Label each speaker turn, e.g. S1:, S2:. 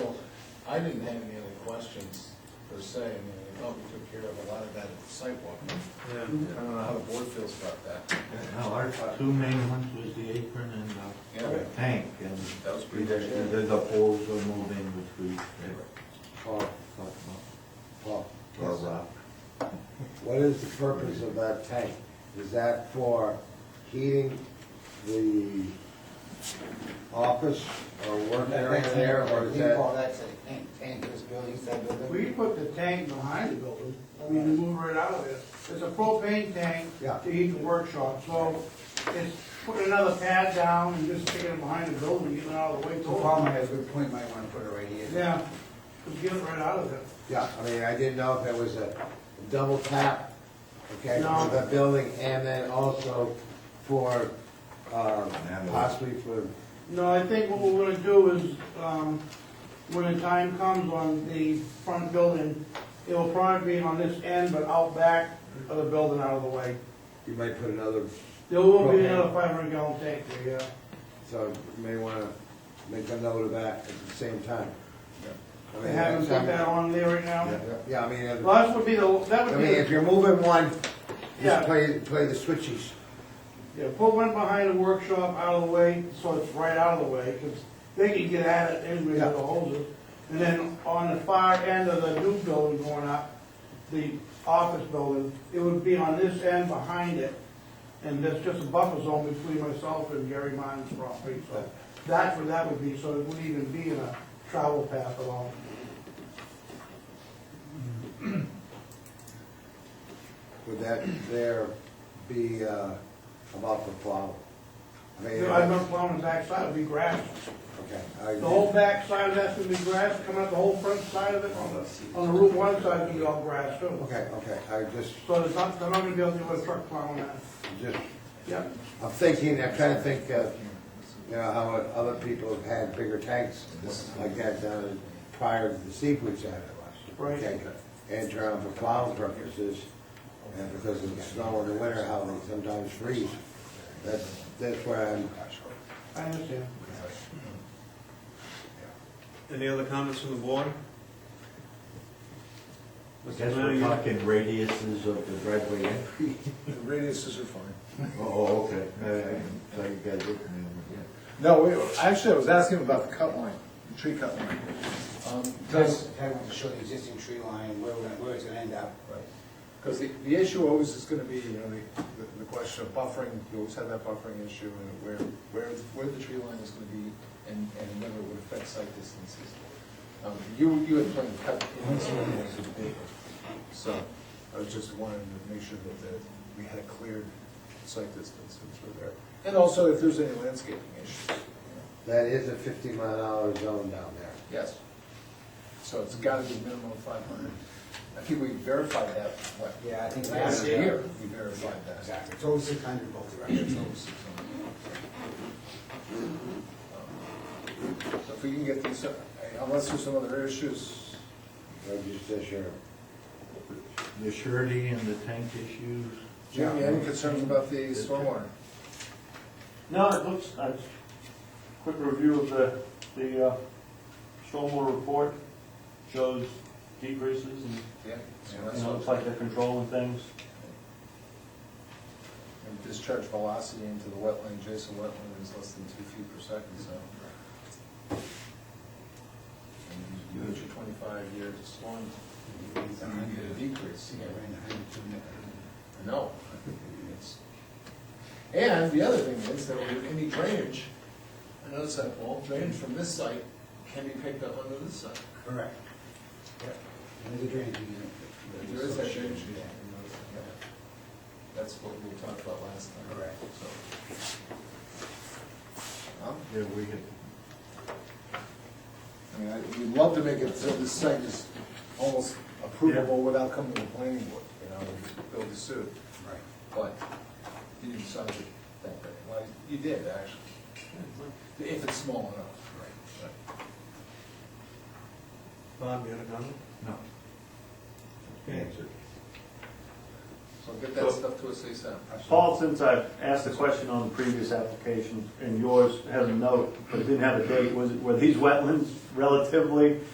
S1: I didn't have any other questions per se, I mean, I thought we took care of a lot of that at the sidewalk.
S2: Yeah.
S1: I don't know how the board feels about that.
S3: No, our two main ones was the apron and the
S1: Yeah,
S3: tank, and
S1: that was pretty
S3: we
S1: good.
S3: just, the the poles were moved in, which we uh,
S4: Paul,
S3: talked
S4: Paul,
S3: about, or rock.
S4: what is the purpose of that tank? Is that for heating the office or work area there, or is
S5: We call
S4: that?
S5: that a tank, tank, this building, that
S6: We
S5: building.
S6: put the tank behind the building, I mean, you move right out of there. It's a propane tank
S4: Yeah.
S6: to heat the workshop, so it's putting another pad down and just sticking it behind the building, getting it out of the way.
S5: The farmer has a good point, might wanna put it right here.
S6: Yeah, just get it right out of there.
S4: Yeah, I mean, I didn't know if there was a double tap, okay,
S6: No.
S4: for the building, and then also for, um, possibly for,
S6: No, I think what we're gonna do is, um, when the time comes on the front building, it will probably be on this end, but out back of the building out of the way.
S4: you might put another,
S6: There will be
S4: Propane.
S6: another five hundred gallon tank there, yeah.
S4: so you may wanna make a note of that at the same time. I mean,
S6: They haven't
S4: that's-
S6: put that on there right now.
S4: Yeah, Yeah, I mean, if-
S6: Well, that would be the, that
S4: I
S6: would be
S4: mean,
S6: the
S4: if you're moving one,
S6: Yeah.
S4: just play, play the switches.
S6: Yeah, put one behind the workshop out of the way, so it's right out of the way, because they can get at it anyway with the hoses. And then on the far end of the new building going up, the office building, it would be on this end behind it. And there's just a buffer zone between myself and Gary Martin's property, so that's where that would be, so it wouldn't even be in a travel path at all.
S4: Would that there be uh, about the plow? I mean,
S6: I've been plowing the backside, it'd be grass.
S4: okay.
S6: The whole back side of that's gonna be grass, coming up the whole front side of it, on the, on the Route One side, it'll be all grass too.
S4: Okay, okay, I just,
S6: So there's not, they're not gonna be able to do a truck plowing that.
S4: just,
S6: Yep.
S4: I'm thinking, I'm trying to think, uh, you know, how other people have had bigger tanks like that down in- prior to the seepage out of
S6: Right.
S4: And trying for plowing purposes, and because of the snow in the winter, how they sometimes freeze. That's, that's where I'm,
S6: I understand.
S2: Any other comments from the board?
S3: I
S2: Mr.
S3: guess we're
S2: Madigan?
S3: talking radiuses of the driveway entry.
S1: The radiuses are fine.
S3: Oh, okay, I, I thought you guys looked at me, yeah.
S7: No, we- actually, I was asking about the cut line, the tree cut line.
S5: Um, Does, I want to show the existing tree line, where, we're gonna- where it's gonna end up.
S7: Because the, the issue always is gonna be, you know, the, the- the question of buffering, you always have that buffering issue, and where, where, where the tree line is gonna be, and, and whether it would affect site distances. Um, You, you had planned to cut in this one, it was big. so I was just wanting to make sure that, that we had a cleared site distances were there. And also, if there's any landscaping issues, you know.
S4: that is a fifty mile an hour zone down there.
S7: yes. So it's gotta be minimum five hundred. I think we verified that, what,
S5: Yeah, I think
S7: Last
S5: last
S7: year,
S5: year.
S7: we verified that.
S5: Exactly, it's always six hundred both directions, always six hundred.
S7: So if we can get these, uh, unless there's some other issues,
S4: Or just this year.
S3: The surety and the tank issues.
S7: Jim, you have any concerns about the stormwater?
S8: No, it looks, uh, quick review of the, the, uh, stormwater report shows decreases and,
S7: Yeah. so
S8: you
S7: that's
S8: know, looks like they're controlling things.
S7: And discharge velocity into the wetland, adjacent wetland is less than two feet per second, so. And you hit your twenty-five year storm, it's going to decrease.
S5: Yeah, right in the hundred, two hundred.
S7: I know. It's- And the other thing is that with any drainage, I noticed that, well, drainage from this site can be picked up under this site.
S5: Correct. Yep. And there's a drainage unit.
S7: There is that drainage.
S5: Yeah.
S7: That's what we talked about last time.
S5: Correct.
S7: So. Well,
S3: Yeah, we had,
S7: I mean, I- we'd love to make it so this site is almost approvable without coming to the planning board, you know, and build the suit,
S5: Right.
S7: but you didn't decide to that, way. well, you did, actually. If it's small enough. Right.
S2: Bob, you had a comment?
S3: no. Answered.
S7: So get that stuff to us ASAP.
S8: Paul, since I've asked the question on the previous application, and yours had a note, but didn't have a date, was, it- were these wetlands relatively